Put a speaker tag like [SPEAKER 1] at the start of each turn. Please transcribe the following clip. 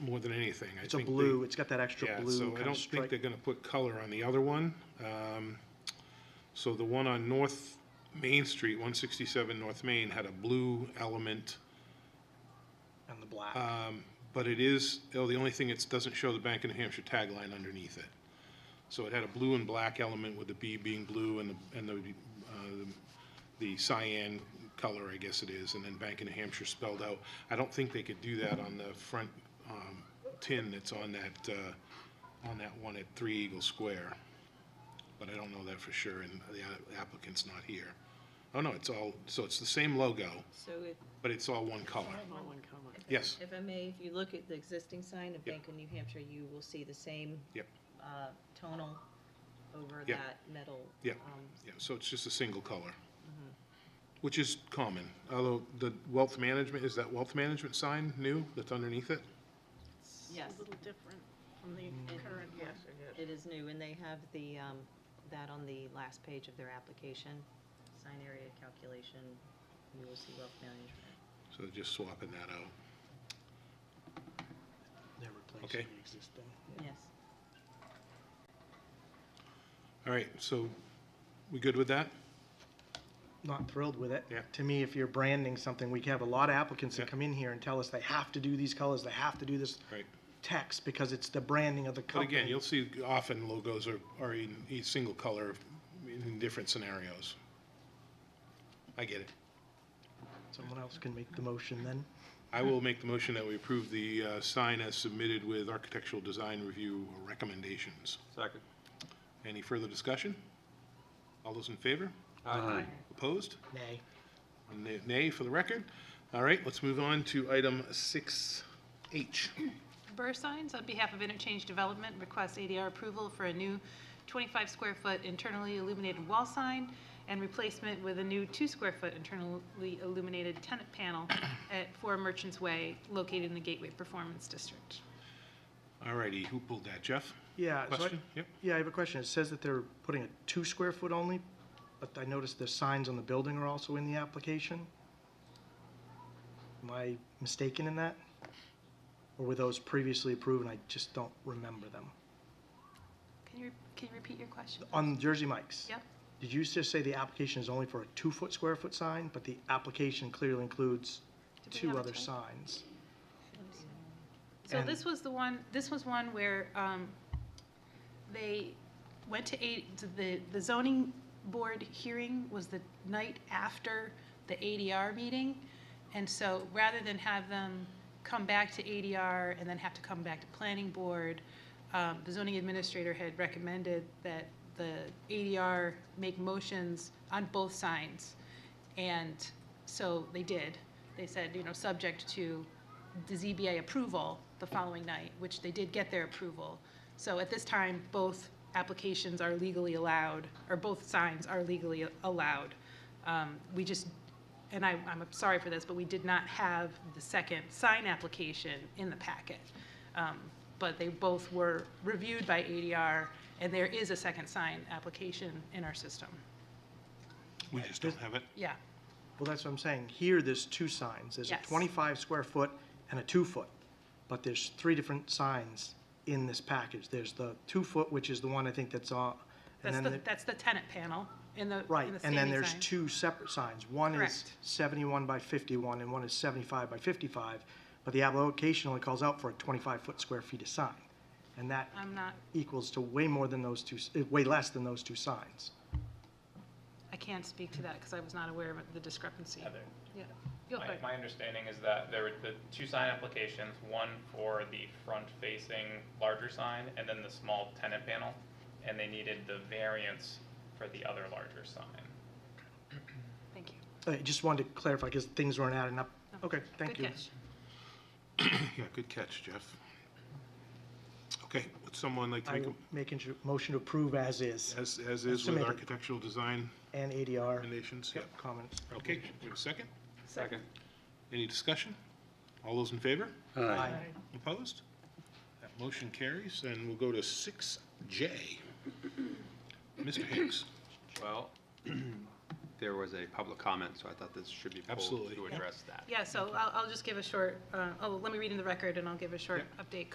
[SPEAKER 1] more than anything. I
[SPEAKER 2] It's a
[SPEAKER 1] think they-
[SPEAKER 2] blue, it's got that extra
[SPEAKER 1] Yeah,
[SPEAKER 2] blue
[SPEAKER 1] so I
[SPEAKER 2] kind
[SPEAKER 1] don't
[SPEAKER 2] of
[SPEAKER 1] think they're
[SPEAKER 2] stripe.
[SPEAKER 1] gonna put color on the other one. Um, So the one on North Main Street, one sixty-seven North Main, had a blue element,
[SPEAKER 2] And the black.
[SPEAKER 1] um, but it is, oh, the only thing, it doesn't show the Bank of New Hampshire tagline underneath it. So it had a blue and black element with the B being blue and the, and the, uh, the cyan color, I guess it is, and then Bank of New Hampshire spelled out. I don't think they could do that on the front, um, tin that's on that, uh, on that one at Three Eagle Square. But I don't know that for sure, and the applicant's not here. Oh, no, it's all, so it's the same logo,
[SPEAKER 3] So if,
[SPEAKER 1] but it's all one color.
[SPEAKER 3] All
[SPEAKER 4] one color.
[SPEAKER 1] Yes.
[SPEAKER 3] if I may, if you look at the existing sign
[SPEAKER 1] Yep.
[SPEAKER 3] of Bank of New Hampshire, you will see the same
[SPEAKER 1] Yep.
[SPEAKER 3] uh, tonal over
[SPEAKER 1] Yep.
[SPEAKER 3] that metal.
[SPEAKER 1] Yep.
[SPEAKER 3] um,
[SPEAKER 1] Yeah, so it's just a single color, which is common, although the wealth management, is that wealth management sign new that's underneath it?
[SPEAKER 3] Yes,
[SPEAKER 4] A little different from the current one.
[SPEAKER 3] it is new, and they have the, um, that on the last page of their application, sign area calculation, you will see wealth management.
[SPEAKER 1] So just swapping that out.
[SPEAKER 2] They're replacing
[SPEAKER 1] okay.
[SPEAKER 2] the existing.
[SPEAKER 3] Yes.
[SPEAKER 1] All right, so we good with that?
[SPEAKER 2] Not thrilled with it.
[SPEAKER 1] Yeah.
[SPEAKER 2] To me, if you're branding something, we have a lot of applicants that
[SPEAKER 1] Yeah.
[SPEAKER 2] come in here and tell us they have to do these colors, they have to do this
[SPEAKER 1] Right.
[SPEAKER 2] text because it's the branding of the
[SPEAKER 1] But
[SPEAKER 2] company.
[SPEAKER 1] again, you'll see often logos are, are in, each single color in different scenarios. I get it.
[SPEAKER 2] Someone else can make the motion then.
[SPEAKER 1] I will make the motion that we approve the uh, sign as submitted with architectural design review recommendations.
[SPEAKER 5] Second.
[SPEAKER 1] Any further discussion? All those in favor?
[SPEAKER 5] Aye.
[SPEAKER 1] Opposed?
[SPEAKER 2] Nay.
[SPEAKER 1] Nay- Nay for the record. All right, let's move on to item 6H.
[SPEAKER 4] Burr Signs, on behalf of Interchange Development, requests ADR approval for a new 25-square-foot internally illuminated wall sign and replacement with a new 2-square-foot internally illuminated tenant panel at 4 Merchants Way, located in the Gateway Performance District.
[SPEAKER 1] All righty, who pulled that, Jeff?
[SPEAKER 2] Yeah. so I-
[SPEAKER 1] Question? Yep.
[SPEAKER 2] Yeah, I have a question. It says that they're putting a two square foot only, but I noticed the signs on the building are also in the application. Am I mistaken in that? Or were those previously approved and I just don't remember them?
[SPEAKER 4] Can you, can you repeat your question?
[SPEAKER 2] On Jersey Mike's?
[SPEAKER 4] Yep.
[SPEAKER 2] Did you just say the application is only for a two foot square foot sign, but the application clearly includes
[SPEAKER 4] Did we have
[SPEAKER 2] two
[SPEAKER 4] a
[SPEAKER 2] other
[SPEAKER 4] typo?
[SPEAKER 2] signs?
[SPEAKER 4] So
[SPEAKER 2] And-
[SPEAKER 4] this was the one, this was one where um, they went to, A- to the the zoning board hearing was the night after the ADR meeting. And so rather than have them come back to ADR and then have to come back to planning board, um, the zoning administrator had recommended that the ADR make motions on both signs. And so they did. They said, you know, subject to the ZBA approval the following night, which they did get their approval. So at this time, both applications are legally allowed, or both signs are legally allowed. Um, We just, and I, I'm sorry for this, but we did not have the second sign application in the packet. Um, But they both were reviewed by ADR, and there is a second sign application in our system.
[SPEAKER 1] We just don't have it.
[SPEAKER 4] Yeah,
[SPEAKER 2] Well, that's what I'm saying. Here, there's two signs. There's a
[SPEAKER 4] Yes.
[SPEAKER 2] 25 square foot and a two foot. But there's three different signs in this package. There's the two foot, which is the one I think that's on. and
[SPEAKER 4] that's
[SPEAKER 2] then
[SPEAKER 4] the,
[SPEAKER 2] the-
[SPEAKER 4] that's the tenant panel in the, in the
[SPEAKER 2] Right, and then
[SPEAKER 4] standing
[SPEAKER 2] there's
[SPEAKER 4] sign.
[SPEAKER 2] two separate signs. One is
[SPEAKER 4] Correct.
[SPEAKER 2] 71 by 51 and one is 75 by 55. But the application only calls out for a 25 foot square feet of sign. And that
[SPEAKER 4] I'm not,
[SPEAKER 2] equals to way more than those two, s- eh, way less than those two signs.
[SPEAKER 4] I can't speak to that because I was not aware of the discrepancy.
[SPEAKER 6] Heather,
[SPEAKER 4] Yeah, Go
[SPEAKER 6] my,
[SPEAKER 4] ahead.
[SPEAKER 6] my understanding is that there were the two sign applications, one for the front-facing larger sign and then the small tenant panel, and they needed the variance for the other larger sign.
[SPEAKER 4] Thank you.
[SPEAKER 2] I Uh, just wanted to clarify because things weren't adding up. Okay, thank
[SPEAKER 4] Oh. Good
[SPEAKER 2] you.
[SPEAKER 4] catch.
[SPEAKER 1] Yeah, good catch, Jeff. Okay, would someone like to
[SPEAKER 2] I
[SPEAKER 1] make,
[SPEAKER 2] will
[SPEAKER 1] a-
[SPEAKER 2] make a motion to approve as is
[SPEAKER 1] as, as is with
[SPEAKER 2] Submitted.
[SPEAKER 1] architectural design
[SPEAKER 2] and ADR
[SPEAKER 1] recommendations? Yep.
[SPEAKER 2] comments.
[SPEAKER 1] Okay, we have a second?
[SPEAKER 5] Second.
[SPEAKER 1] Any discussion? All those in favor?
[SPEAKER 2] Aye.
[SPEAKER 1] Opposed? That motion carries, and we'll go to 6J. Mr. Hicks.
[SPEAKER 5] Well, there was a public comment, so I thought this should be pulled
[SPEAKER 1] Absolutely.
[SPEAKER 5] to address that.
[SPEAKER 4] Yeah, so I'll, I'll just give a short, uh, oh, let me read in the record and I'll give a short update